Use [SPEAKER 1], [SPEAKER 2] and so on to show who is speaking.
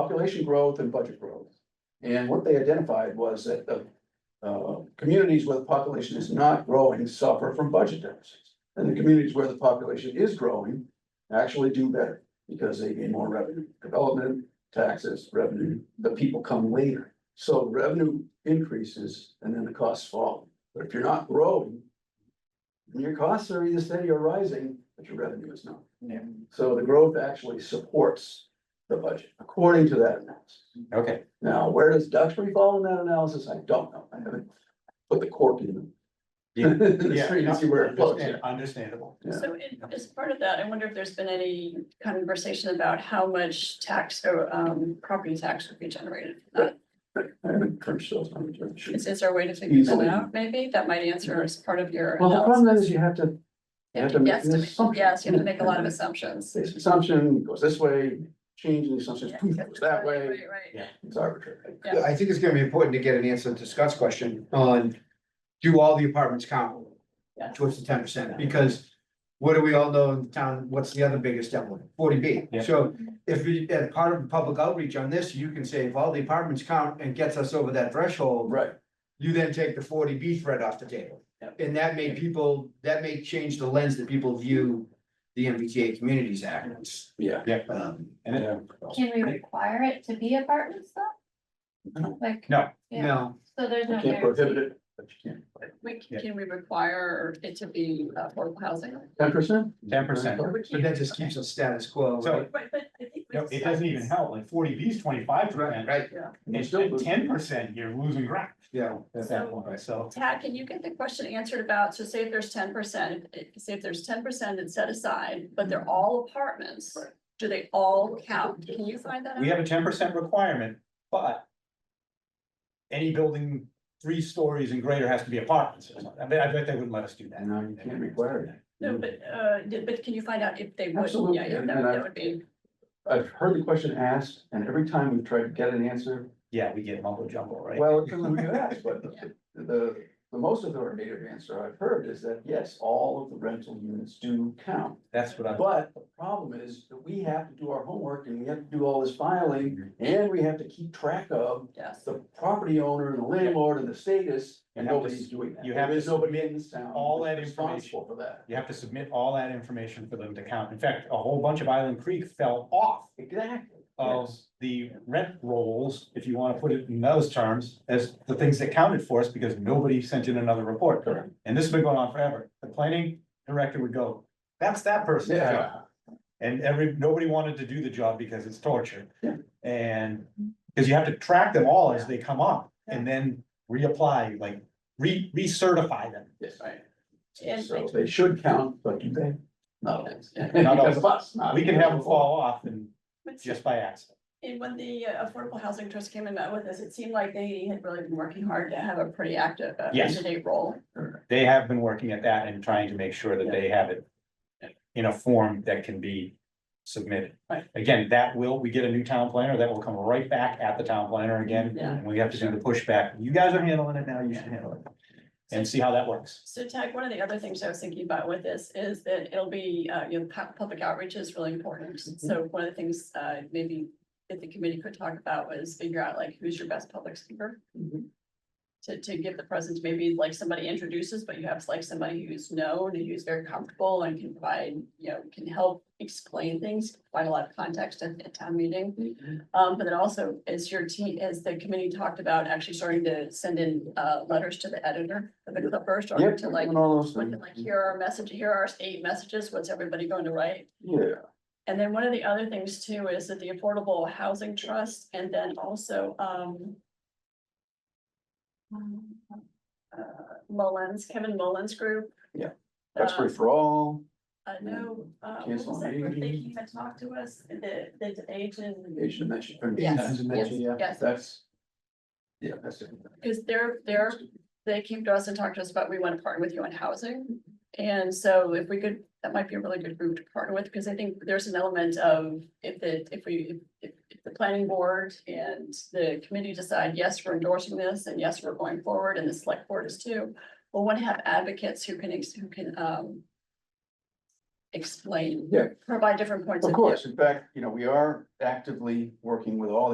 [SPEAKER 1] population growth and budget growth. And what they identified was that the uh, communities where the population is not growing suffer from budget deficits. And the communities where the population is growing actually do better because they gain more revenue, development, taxes, revenue, the people come later. So revenue increases and then the costs fall. But if you're not growing, and your costs are either steady or rising, but your revenue is not. So the growth actually supports the budget, according to that analysis.
[SPEAKER 2] Okay,
[SPEAKER 1] Now, where does Duxbury fall in that analysis? I don't know. I haven't put the cork in.
[SPEAKER 2] Yeah.
[SPEAKER 1] The street and see where it flows.
[SPEAKER 2] Understand- Understandable.
[SPEAKER 1] Yeah.
[SPEAKER 3] So in- as part of that, I wonder if there's been any conversation about how much tax or um property tax would be generated. from that?
[SPEAKER 1] I haven't crunched those numbers.
[SPEAKER 3] Is is there a way to figure
[SPEAKER 1] Easily.
[SPEAKER 3] that out? Maybe that might answer as part of your.
[SPEAKER 1] Well, the
[SPEAKER 3] analysis.
[SPEAKER 1] problem is you have to, you have to make
[SPEAKER 3] Yes,
[SPEAKER 1] an assumption.
[SPEAKER 3] yes, you have to make a lot of assumptions.
[SPEAKER 1] This assumption goes this way, change the assumption,
[SPEAKER 3] Yeah,
[SPEAKER 1] poof, goes that way,
[SPEAKER 3] Right, right.
[SPEAKER 1] it's arbitrary.
[SPEAKER 3] Yeah.
[SPEAKER 2] I think it's gonna be important to get an answer to Scott's question on, do all the apartments count?
[SPEAKER 3] Yes.
[SPEAKER 2] Towards the ten percent, because what do we all know in town, what's the other biggest element, forty B?
[SPEAKER 4] Yeah.
[SPEAKER 2] So if we, as part of public outreach on this, you can say if all the apartments count and gets us over that threshold,
[SPEAKER 1] Right,
[SPEAKER 2] you then take the forty B threat off the table.
[SPEAKER 1] Yeah.
[SPEAKER 2] And that may people, that may change the lens that people view the MBTA Communities Act.
[SPEAKER 1] yeah.
[SPEAKER 2] Um,
[SPEAKER 4] And it-
[SPEAKER 5] Can we require it to be apartments though?
[SPEAKER 1] No.
[SPEAKER 5] Like.
[SPEAKER 4] No.
[SPEAKER 5] Yeah.
[SPEAKER 2] no.
[SPEAKER 5] So there's
[SPEAKER 1] You
[SPEAKER 5] no
[SPEAKER 1] can't prohibit
[SPEAKER 5] guarantee.
[SPEAKER 1] it, but you can.
[SPEAKER 3] We,
[SPEAKER 4] Yeah.
[SPEAKER 3] can we require it to be uh, affordable housing?
[SPEAKER 1] Ten percent?
[SPEAKER 4] 10%.
[SPEAKER 2] But that just keeps us status quo,
[SPEAKER 4] So-
[SPEAKER 2] right?
[SPEAKER 3] Right, but I think. we
[SPEAKER 4] no, it doesn't even help, like forty B is twenty-five
[SPEAKER 2] Right,
[SPEAKER 4] percent,
[SPEAKER 2] right,
[SPEAKER 4] and ten percent, you're losing ground
[SPEAKER 2] yeah,
[SPEAKER 4] at that point, so.
[SPEAKER 3] Tad, can you get the question answered about, so say if there's ten percent, say if there's ten percent that's set aside, but they're all apartments.
[SPEAKER 1] Right.
[SPEAKER 3] Do they all count? Can you find that out?
[SPEAKER 4] We have a ten percent requirement, but. Any building three stories and greater has to be apartments, or something. I bet, I bet they wouldn't let us do that.
[SPEAKER 1] No, you can't require it.
[SPEAKER 3] No, but uh, did- but can you find out if they would?
[SPEAKER 1] Absolutely,
[SPEAKER 3] Yeah, yeah,
[SPEAKER 1] and-
[SPEAKER 3] that
[SPEAKER 1] and I-
[SPEAKER 3] that would be,
[SPEAKER 1] I've heard the question asked, and every time we've tried to get an answer,
[SPEAKER 4] Yeah, we get mumbo jumbo, right?
[SPEAKER 1] well, it doesn't really ask, but the, the, the most authoritative answer I've heard is that, yes, all of the rental units do count.
[SPEAKER 4] That's what I'm.
[SPEAKER 1] But the problem is that we have to do our homework and we have to do all this filing, and we have to keep track of
[SPEAKER 3] yes.
[SPEAKER 1] the property owner and the landlord and the status, and
[SPEAKER 4] You have to-
[SPEAKER 1] nobody's doing that.
[SPEAKER 4] you have
[SPEAKER 1] There is
[SPEAKER 4] to
[SPEAKER 1] nobody in this town.
[SPEAKER 4] all that
[SPEAKER 1] who's responsible For that.
[SPEAKER 4] You have to submit all that information for them to count. In fact, a whole bunch of Island Creek fell off
[SPEAKER 1] Exactly.
[SPEAKER 4] of
[SPEAKER 1] Yes.
[SPEAKER 4] the rent rolls, if you wanna put it in those terms, as the things that counted for us, because nobody sent in another report.
[SPEAKER 1] Correct.
[SPEAKER 4] And this has been going on forever. The planning director would go, that's that person.
[SPEAKER 1] Yeah.
[SPEAKER 4] And every, nobody wanted to do the job because it's torture.
[SPEAKER 1] Yeah.
[SPEAKER 4] And, because you have to track them all as they come up and then reapply, like, re, recertify them.
[SPEAKER 1] Yes,
[SPEAKER 3] And-
[SPEAKER 1] So they should count, but do they? No.
[SPEAKER 4] Not all.
[SPEAKER 1] Because of us. not-
[SPEAKER 4] We can have them fall off and
[SPEAKER 3] But
[SPEAKER 4] just by accident.
[SPEAKER 3] And when the uh, Affordable Housing Trust came and met with us, it seemed like they had really been working hard to have a pretty active, uh,
[SPEAKER 4] Yes.
[SPEAKER 3] up-to-date role.
[SPEAKER 4] They have been working at that and trying to make sure that they have it in a form that can be submitted.
[SPEAKER 3] Right.
[SPEAKER 4] Again, that will, we get a new town planner, that will come right back at the town planner again.
[SPEAKER 3] Yeah.
[SPEAKER 4] And we have to do the pushback. You guys are handling it now, you should handle it. And see how that works.
[SPEAKER 3] So Tag, one of the other things I was thinking about with this is that it'll be, uh, you know, pu- public outreach is really important. So one of the things, uh, maybe that the committee could talk about was figure out like who's your best public speaker
[SPEAKER 1] Mhm.
[SPEAKER 3] to, to give the presence, maybe like somebody introduces, but you have like somebody who's known and who's very comfortable and can provide, you know, can help explain things, provide a lot of context at, at town meeting. Um, but then also, as your team, as the committee talked about, actually starting to send in, uh, letters to the editor of the Clipper, starting
[SPEAKER 1] Yep,
[SPEAKER 3] to like,
[SPEAKER 1] and all those
[SPEAKER 3] look
[SPEAKER 1] things.
[SPEAKER 3] at like, here are our message, here are our eight messages, what's everybody going to write?
[SPEAKER 1] Yeah.
[SPEAKER 3] And then one of the other things too is that the Affordable Housing Trust and then also, um, uh, Mullins, Kevin Mullins Group.
[SPEAKER 1] Yeah, That's
[SPEAKER 3] Uh,
[SPEAKER 1] free for all,
[SPEAKER 3] I know, uh, what
[SPEAKER 1] Cancel
[SPEAKER 3] was that group that
[SPEAKER 1] meeting.
[SPEAKER 3] came and talked to us, the, the Asian.
[SPEAKER 1] Asian mention.
[SPEAKER 3] Yes,
[SPEAKER 2] yes,
[SPEAKER 3] Yes,
[SPEAKER 1] That's. Yeah, that's.
[SPEAKER 3] Because they're, they're, they came to us and talked to us about, we want to partner with you on housing. And so if we could, that might be a really good group to partner with, because I think there's an element of if the, if we, if, if the planning board and the committee decide, yes, we're endorsing this and yes, we're going forward and the select board is too. We'll want to have advocates who can, ex- who can, um, explain.
[SPEAKER 1] Yeah.
[SPEAKER 3] Provide different points of
[SPEAKER 1] Of
[SPEAKER 3] view.
[SPEAKER 1] course, in fact, you know, we are actively working with all